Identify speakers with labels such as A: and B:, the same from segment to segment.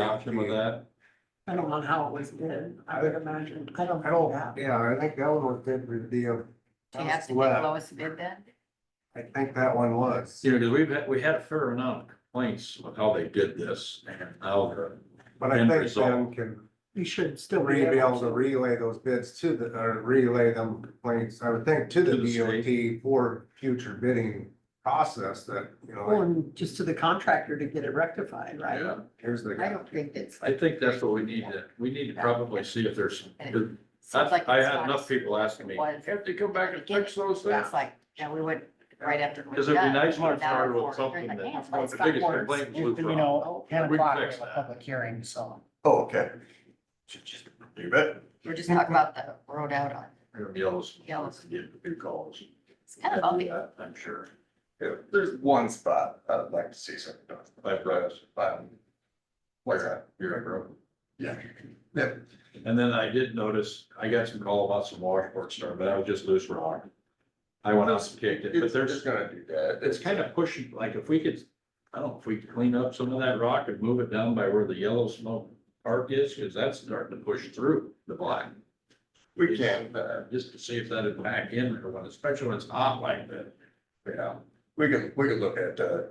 A: option with that?
B: I don't know how it was did, I would imagine, I don't
C: I
B: know
C: don't,
B: that.
C: yeah, I think that one was good with the,
D: Do you have to be the
C: Well-
D: lowest bid then?
C: I think that one was,
A: You know, because we've had, we had a fair amount of complaints of how they did this and how they're.
C: but I
A: End
C: think
A: result.
C: Ben can
B: You should still be
C: re- be able
B: able
C: to
B: to.
C: relay those bids to the, or relay them complaints, I would think, to
A: To the
C: the DOT for future bidding process that, you know,
B: Well,
C: like,
B: and just to the contractor to get it rectified, right?
A: Yeah,
C: here's the
D: I
C: guy.
D: don't think that's.
A: I think that's what we need to, we need to probably see if there's, because
D: Sounds like
A: I
D: it's
A: had
D: not-
A: enough people asking me, have to come back and fix those things?
D: It's like, yeah, we would, right after. we're
A: Because it'd be
D: done,
A: nice to
D: we're down
A: start
D: to
A: with
D: four. You're
A: something
D: like, man,
A: that,
D: it's
A: one of the
D: got
A: biggest
D: worse.
A: complaints
E: You
A: was wrong.
E: know, ten
A: We
E: o'clock, we
A: fixed
E: have a
A: that.
E: public hearing, so.
F: Oh, okay. You bet.
D: We're just talking about the road out on,
A: Yells.
D: Yells.
A: Yeah, big calls.
D: it's kind of bumpy.
A: I'm sure.
F: Yeah, There's one spot I'd like to see something done.
A: I promise.
F: Um, What's that?
A: You're a bro.
F: Yeah. Yeah.
A: And then I did notice, I got some call about some washboard storm, but I was just loose rock. I went out and kicked it, but
F: It's,
A: there's,
F: it's gonna do that.
A: it's kind of pushing, like if we could, I don't know, if we could clean up some of that rock and move it down by where the yellow smoke arc is, because that's starting to push through the black.
F: We can, uh,
A: Just to see if that'd back in or what, especially when it's hot like that.
F: yeah, we can, we can look at, uh,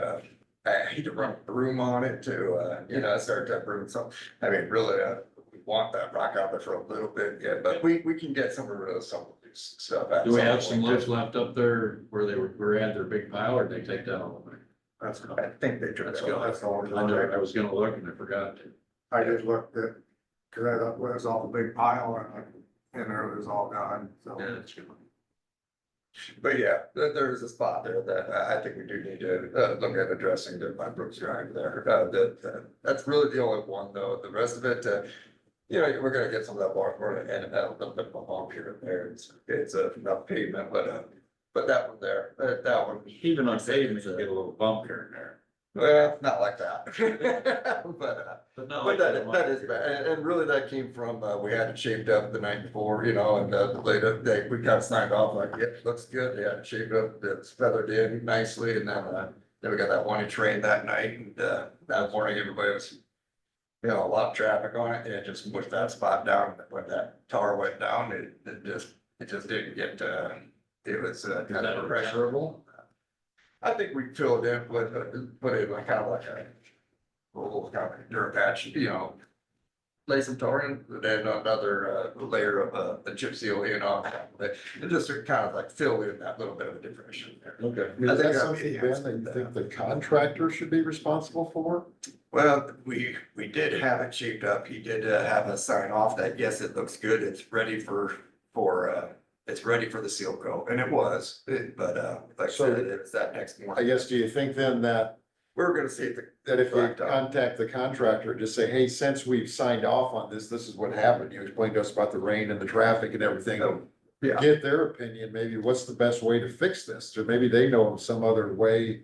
F: uh, I hate to run a room on it to, uh, you know, start to room some. I mean, really, uh, we want that rock out there for a little bit, yeah, but we, we can get some of those, some of these stuff. at
A: Do we
F: some
A: have some
F: point.
A: loose left up there where they were, were at their big pile or did they take that all?
C: That's,
F: I think they tried.
A: Let's go.
C: that's all.
A: I know, I was gonna look and I forgot.
C: I just looked at, cause I thought, well, it was all a big pile and, and it was all gone, so.
A: Yeah, it's good.
F: But yeah, there, there is a spot there that I, I think we do need to, uh, look at addressing the, my Brooks Drive there. Uh, that, that- that's really the only one though. The rest of it, uh, you know, we're gonna get some of that washboard and uh, a little bit of a hump here and there. It's, it's uh, not pavement, but, uh, but that one there, uh, that one,
A: Even on pavement, you get a little bump here and there.
F: well, not like that. But, uh,
A: But not like.
F: but that, that is bad, and, and really that came from, uh, we had it shaved up the night before, you know, and, uh, later, they, we got signed off like, yep, looks good, they had it shaved up, it's feathered in nicely, and then, uh, then we got that one inch rain that night, and, uh, that morning, everybody was, you know, a lot of traffic on it, and it just pushed that spot down, when that tar went down, it, it just, it just didn't get, uh, it was, uh,
A: Is
F: kind
A: that
F: of pressure.
A: repairable?
F: I think we filled in, but, put in like kind of like a little kind of dirt patch, you know. Lay some tar in, then another uh layer of uh the chip seal in on top of it, and just to kind of like fill in that little bit of a depression there.
A: Okay.
F: I
G: Is
F: think I'd
G: that something,
F: be
G: Ben, that you think the contractor should be responsible for?
F: Well, we, we did have it shaped up. He did uh, have us sign off that, yes, it looks good. It's ready for, for, uh, it's ready for the seal coat. And it was, it- but, uh, like I
G: So-
F: said, it was that next
G: I
F: morning.
G: guess, do you think then that,
F: We were gonna see if the
G: that if you
F: Correct.
G: contact the contractor, just say, hey, since we've signed off on this, this is what happened. You explained to us about the rain and the traffic and everything.
F: Oh, yeah.
G: Get their opinion, maybe what's the best way to fix this? Or maybe they know of some other way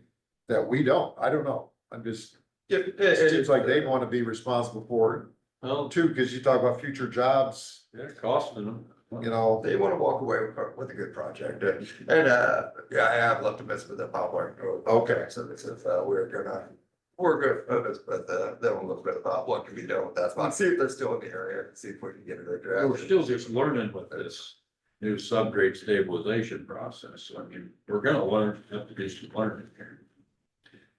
G: that we don't. I don't know. I'm just,
F: It
G: it uh, seems like they want to be responsible for
A: Well,
G: it too, because you talk about future jobs,
A: they're costing them.
G: you know.
F: They want to walk away with, with a good project, and, and, uh, yeah, I have left a message with the Poplar.
G: Okay.
F: So this is, uh, we're gonna, we're good, for this, but, uh, then we'll look at about what can be done with that spot, see if they're still in the area, see if we can get it addressed.
A: We're still just learning with this new subgrade stabilization process. So, I mean, we're gonna learn, have to do some learning here.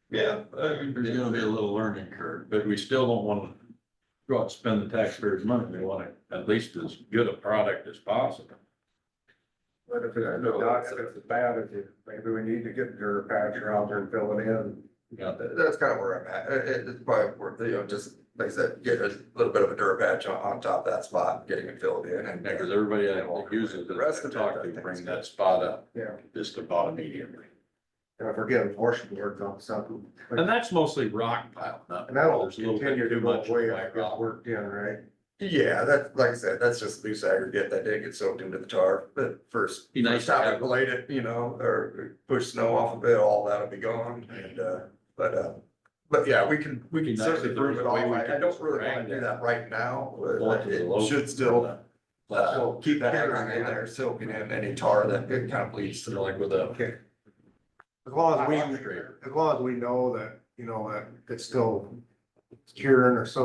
F: Yeah, I mean,
A: There's gonna be a little learning curve, but we still don't wanna go out and spend the taxpayers' money. We want it at least as good a product as possible.
C: But if it's, not- if it's bad, if you, maybe we need to get dirt patch out there and fill it in.
A: Yeah,
F: That- That's kind of where I'm at. It- it- It's probably worth, you know, just like I said, get a little bit of a dirt patch on, on top of that spot, getting it filled in and.
A: because everybody that uses it, I talk to, bring that spot up.
C: Yeah.
A: Just about immediately.
C: And if we're getting washboard on something,
A: And that's mostly rock pile, not.
C: and that'll
A: there's a little bit
C: continue to
A: too
C: go
A: much
C: away if
A: white
C: it
A: rock.
C: gets worked in, right?
F: Yeah, that, like I said, that's just loose aggregate that did get soaked into the tar, but first.
A: Be nice
F: first
A: to
F: time
A: have-
F: it blade it, you know, or push snow off of it, all that'll be gone, and, uh, but, uh, but yeah, we can, we
A: Be
F: can
A: nice
F: certainly
A: if there's
F: prove it
A: a
F: all,
A: way we
F: I, I
A: can
F: don't really
A: drag
F: wanna do
A: that.
F: that right now,
A: Going
F: but
A: to the
F: it
A: local-
F: should still, uh, keep that aggregate in
C: Yeah.
F: there, soaking in any tar that it kind of bleeds through like with a.
C: Okay. As long as we,
A: Rock scraper.
C: as long as we know that, you know, that it's still curing or so